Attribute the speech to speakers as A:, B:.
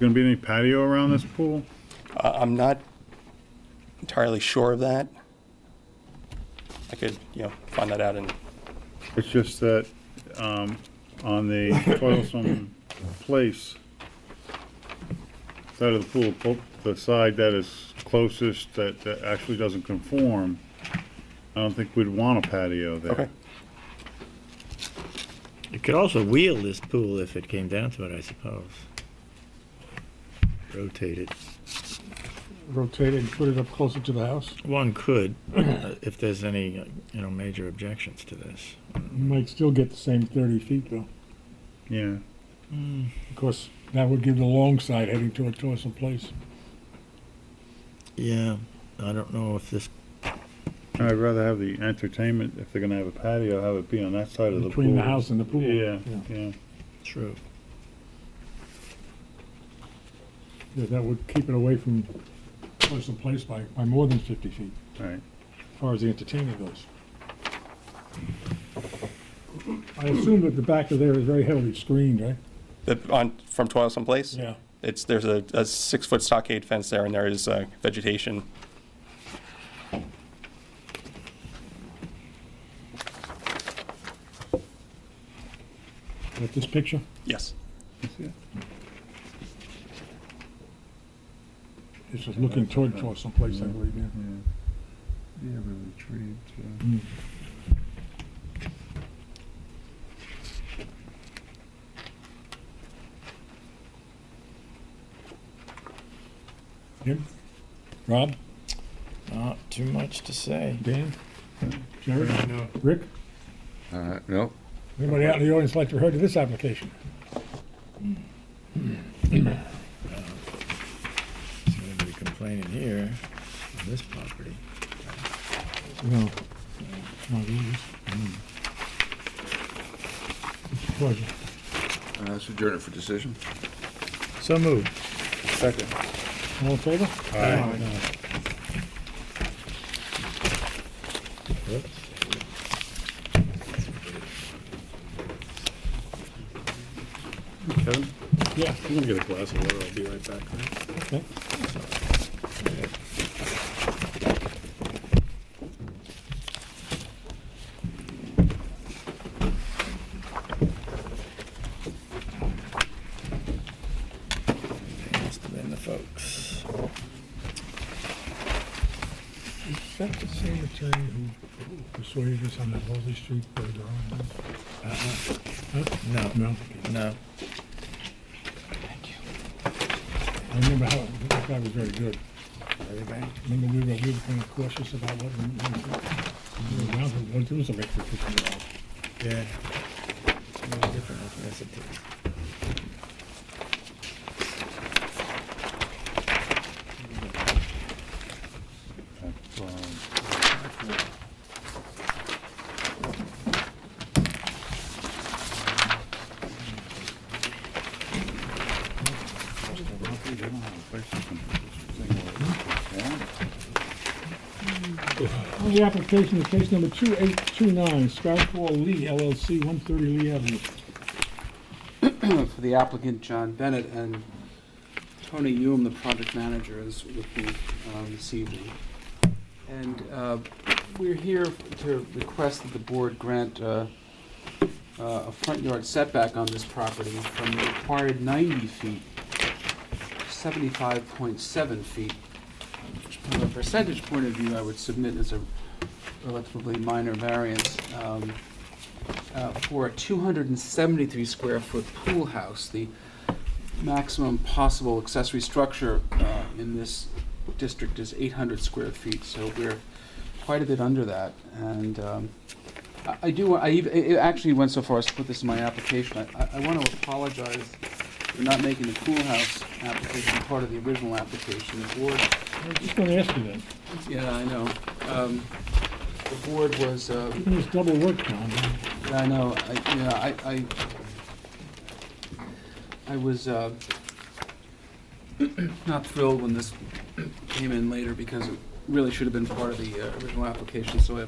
A: gonna be any patio around this pool?
B: I- I'm not entirely sure of that. I could, you know, find that out and,
A: It's just that, um, on the toilsome place side of the pool, po- the side that is closest, that, that actually doesn't conform, I don't think we'd want a patio there.
B: okay.
C: It could also wheel this pool if it came down to it, I suppose. Rotate it.
D: rotate it and put it up closer to the house.
C: One could, uh, if there's any, uh, you know, major objections to this.
D: You might still get the same thirty feet though.
A: Yeah,
D: Of course, that would give the long side heading toward Torsen Place.
C: Yeah, I don't know if this,
A: I'd rather have the entertainment, if they're gonna have a patio, have it be on that side of the pool.
D: Between the house and the pool.
A: Yeah, yeah,
C: true.
D: Yeah, That would keep it away from Torsen Place by, by more than fifty feet,
A: alright.
D: as far as the entertainment goes. I assume that the back of there is very heavily screened, right?
B: That, on, from Toilsome Place? It's, there's a, a six-foot stockade fence there, and there is uh, vegetation.
D: Like this picture?
B: Yes.
D: This is looking toward Torsen Place, I believe, yeah.
A: Yeah, really trees,
D: Jim? Rob?
C: Not too much to say.
D: Dan? Jerry? Rick?
E: Uh, no,
D: Anybody out in the audience like to hear of this application?
C: There's nobody complaining here on this property.
D: No. Not yours. It's a pleasure.
E: uh, let's adjourn it for decision.
C: So moved.
E: Second.
D: All in favor?
A: Kevin,
D: Yeah.
A: I'm gonna get a glass of water, I'll be right back.
D: Okay.
C: They must have been the folks.
D: Is that the same attorney who persuaded us on that Holy Street drawing?
C: No,
D: No.
C: Uh-huh. no.
D: I remember how, that guy was very good. Remember, we were, we were kind of cautious about what we, we were around, but what there was a rectification involved.
C: Yeah. It's a little different with recipe.
A: That's, um,
D: On the application of case number 2829, Skyfall Lee LLC, 130 Lee Avenue.
F: for the applicant, John Bennett, and Tony Hume, the project manager, is with me um, this evening. And uh, we're here to request that the board grant uh, uh, a front yard setback on this property from the required 90 feet, 75.7 feet. which From a percentage point of view, I would submit as a relatively minor variance. um, uh, for a 273 square foot pool house, the maximum possible accessory structure uh, in this district is 800 square feet, so we're quite a bit under that. And um, I- I do, wa- I ev- I I actually went so far as to put this in my application. I- I want to apologize for not making the pool house application part of the original application. The board
D: I was just going to ask you that.
F: yeah, I know. Um, The board was, uh,
D: Look at this double work, John.
F: I know, I, yeah, I, I, I was, uh, not thrilled when this came in later because it really should have been part of the uh, original application, so I